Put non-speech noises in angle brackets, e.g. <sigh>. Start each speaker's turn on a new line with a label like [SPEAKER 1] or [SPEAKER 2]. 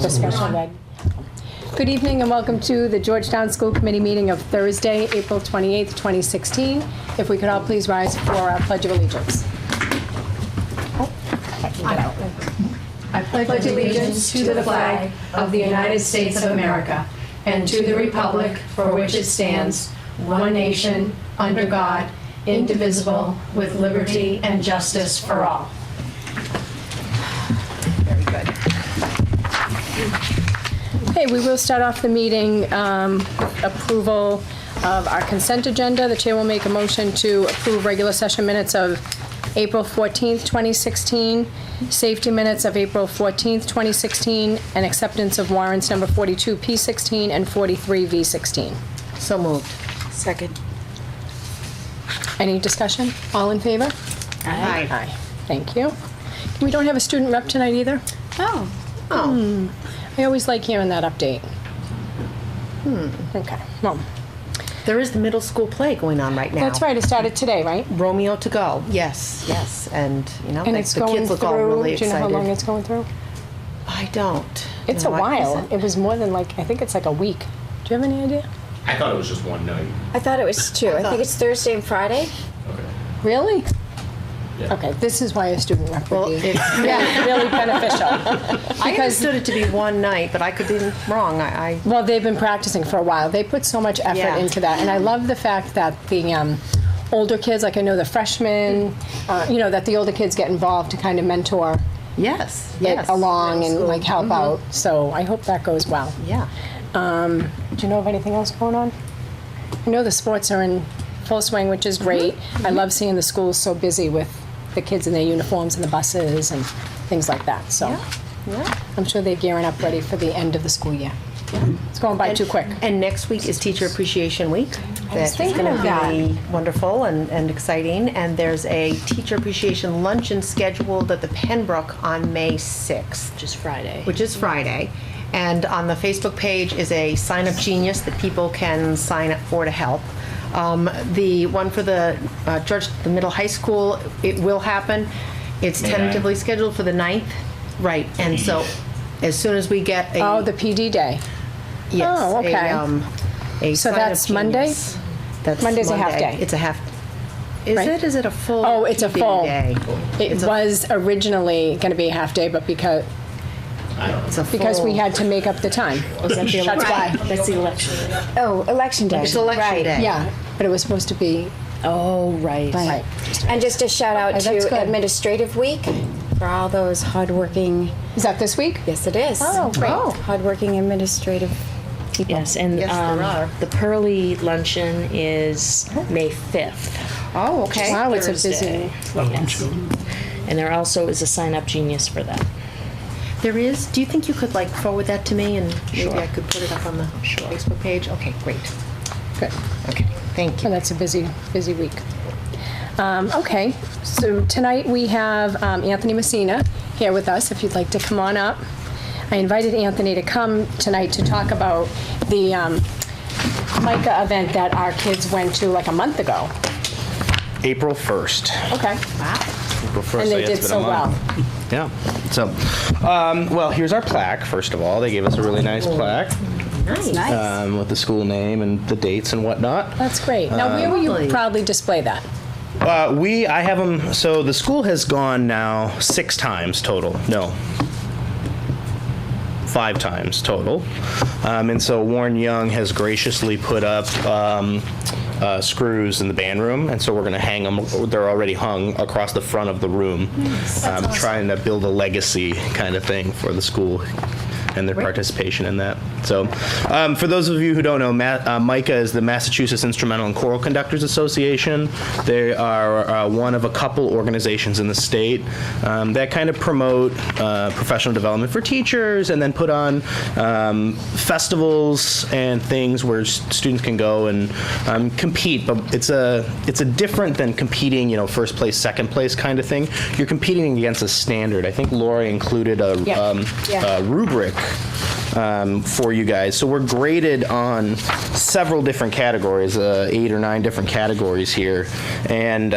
[SPEAKER 1] The special ed. Good evening and welcome to the Georgetown School Committee meeting of Thursday, April 28th, 2016. If we could all please rise for our Pledge of Allegiance.
[SPEAKER 2] I pledge allegiance to the flag of the United States of America and to the republic for which it stands, one nation, under God, indivisible, with liberty and justice for all. Very good.
[SPEAKER 1] Okay, we will start off the meeting um, with approval of our consent agenda. The chair will make a motion to approve regular session minutes of April 14th, 2016, safety minutes of April 14th, 2016, and acceptance of warrants number 42P16 and 43V16.
[SPEAKER 3] So moved. Second.
[SPEAKER 1] Any discussion? All in favor?
[SPEAKER 3] Aye.
[SPEAKER 1] Aye. Thank you. We don't have a student rep tonight either.
[SPEAKER 3] Oh. Oh.
[SPEAKER 1] I always like hearing that update. Hmm, Okay, well,
[SPEAKER 3] There is the middle school play going on right now.
[SPEAKER 1] that's right, it started today, right?
[SPEAKER 3] Romeo to go. Yes, yes, and you know
[SPEAKER 1] And
[SPEAKER 3] they-
[SPEAKER 1] it's
[SPEAKER 3] the
[SPEAKER 1] going
[SPEAKER 3] kids look all really
[SPEAKER 1] through, do you know how
[SPEAKER 3] excited.
[SPEAKER 1] long it's going through?
[SPEAKER 3] I don't.
[SPEAKER 1] It's a
[SPEAKER 3] No, I
[SPEAKER 1] while.
[SPEAKER 3] wasn't.
[SPEAKER 1] It was more than like, I think it's like a week. Do you have any idea?
[SPEAKER 4] I thought it was just one night.
[SPEAKER 5] I thought it was two. I think it's Thursday and Friday.
[SPEAKER 4] Okay.
[SPEAKER 1] Really?
[SPEAKER 4] Yeah.
[SPEAKER 1] Okay, this is why a student rep
[SPEAKER 3] Well,
[SPEAKER 1] would be
[SPEAKER 3] it's, <laughs>
[SPEAKER 1] really really beneficial.
[SPEAKER 3] I
[SPEAKER 1] because-
[SPEAKER 3] understood it to be one night, but I could be wrong. I, I
[SPEAKER 1] Well, they've been practicing for a while. They put so much effort
[SPEAKER 3] Yeah.
[SPEAKER 1] into that, and I love the fact that the um, older kids, like I know the freshmen, uh, you know, that the older kids get involved to kind of mentor
[SPEAKER 3] yes,
[SPEAKER 1] it
[SPEAKER 3] yes, Mm-hmm.
[SPEAKER 1] along and like help out. So I hope that goes well.
[SPEAKER 3] Yeah.
[SPEAKER 1] Um, do you know of anything else going on? I know the sports are in full swing, which is great. I love seeing the schools so busy with the kids in their uniforms and the buses and things like that. So
[SPEAKER 3] Yeah.
[SPEAKER 1] I'm sure they're gearing up ready for the end of the school year. It's going by too quick.
[SPEAKER 3] And next week is Teacher Appreciation Week.
[SPEAKER 1] I was
[SPEAKER 3] That is
[SPEAKER 1] thinking
[SPEAKER 3] gonna
[SPEAKER 1] of that.
[SPEAKER 3] be Wonderful and, and exciting. And there's a Teacher Appreciation Luncheon scheduled at the Pembroke on May 6th. Which is Friday. Which is Friday. And on the Facebook page is a Sign Up Genius that people can sign up for to help. Um, The one for the uh, George, the middle high school, it will happen. It's
[SPEAKER 4] May ninth.
[SPEAKER 3] tentatively scheduled for the 9th. Right. And so as soon as we get a.
[SPEAKER 1] Oh, the PD day.
[SPEAKER 3] Yes.
[SPEAKER 1] Oh,
[SPEAKER 3] a,
[SPEAKER 1] okay.
[SPEAKER 3] um, a
[SPEAKER 1] So
[SPEAKER 3] sign of
[SPEAKER 1] that's Monday?
[SPEAKER 3] genius. That's
[SPEAKER 1] Monday's a
[SPEAKER 3] Monday.
[SPEAKER 1] half day.
[SPEAKER 3] It's a half. Is
[SPEAKER 1] Right.
[SPEAKER 3] it? Is it a full?
[SPEAKER 1] Oh, it's a
[SPEAKER 3] PD
[SPEAKER 1] full.
[SPEAKER 3] Day?
[SPEAKER 1] It
[SPEAKER 3] It's a-
[SPEAKER 1] was originally going to be a half day, but because,
[SPEAKER 3] It's a full.
[SPEAKER 1] because we had to make up the time. That's why.
[SPEAKER 2] That's the election.
[SPEAKER 5] Oh, election day.
[SPEAKER 3] It's election
[SPEAKER 5] right.
[SPEAKER 3] day.
[SPEAKER 1] Yeah, but it was supposed to be,
[SPEAKER 2] Oh, right.
[SPEAKER 1] right.
[SPEAKER 5] And just a shout out
[SPEAKER 1] Oh, that's
[SPEAKER 5] to
[SPEAKER 1] good.
[SPEAKER 5] Administrative Week for all those hardworking.
[SPEAKER 1] Is that this week?
[SPEAKER 5] Yes, it is.
[SPEAKER 1] Oh, great.
[SPEAKER 5] Oh. Hardworking administrative people.
[SPEAKER 6] Yes, and
[SPEAKER 3] Yes, there
[SPEAKER 6] um,
[SPEAKER 3] are.
[SPEAKER 6] the Pearly Luncheon is May 5th.
[SPEAKER 3] Oh, okay.
[SPEAKER 1] Wow, it's a
[SPEAKER 6] Thursday.
[SPEAKER 1] busy.
[SPEAKER 6] Yes. And there also is a sign up genius for that.
[SPEAKER 3] There is. Do you think you could like forward that to me and
[SPEAKER 6] Sure.
[SPEAKER 3] maybe I could put it up on the
[SPEAKER 6] Sure.
[SPEAKER 3] Facebook page? Okay, great.
[SPEAKER 1] Good.
[SPEAKER 3] Okay, thank
[SPEAKER 1] Oh,
[SPEAKER 3] you.
[SPEAKER 1] that's a busy, busy week. Um, okay, so tonight we have um, Anthony Messina here with us, if you'd like to come on up. I invited Anthony to come tonight to talk about the um, MICA event that our kids went to like a month ago.
[SPEAKER 7] April 1st.
[SPEAKER 1] Okay.
[SPEAKER 7] April 1st.
[SPEAKER 1] And
[SPEAKER 7] so
[SPEAKER 1] they
[SPEAKER 7] yeah, it's
[SPEAKER 1] did
[SPEAKER 7] been a
[SPEAKER 1] so well.
[SPEAKER 7] month. Yeah. So, um, well, here's our plaque, first of all. They gave us a really nice plaque
[SPEAKER 3] Nice.
[SPEAKER 7] um, with the school name and the dates and whatnot.
[SPEAKER 1] That's great. Now, where will you
[SPEAKER 3] Lovely.
[SPEAKER 1] proudly display that?
[SPEAKER 7] Uh, we, I have them, so the school has gone now six times total. No. Five times total. Um, and so Warren Young has graciously put up um, uh, screws in the band room, and so we're going to hang them. They're already hung across the front of the room, um, trying to build a legacy kind of thing for the school and their participation in that. So, um, for those of you who don't know, Ma- uh, MICA is the Massachusetts Instrumental and Choral Conductors Association. They are uh, one of a couple organizations in the state um, that kind of promote uh, professional development for teachers and then put on um, festivals and things where s- students can go and um, compete. But it's a it's a different than competing, you know, first place, second place kind of thing. You're competing against a standard. I think Laura included a,
[SPEAKER 1] Yeah.
[SPEAKER 7] um,
[SPEAKER 1] Yeah.
[SPEAKER 7] a rubric um, for you guys. So we're graded on several different categories, uh, eight or nine different categories here, and.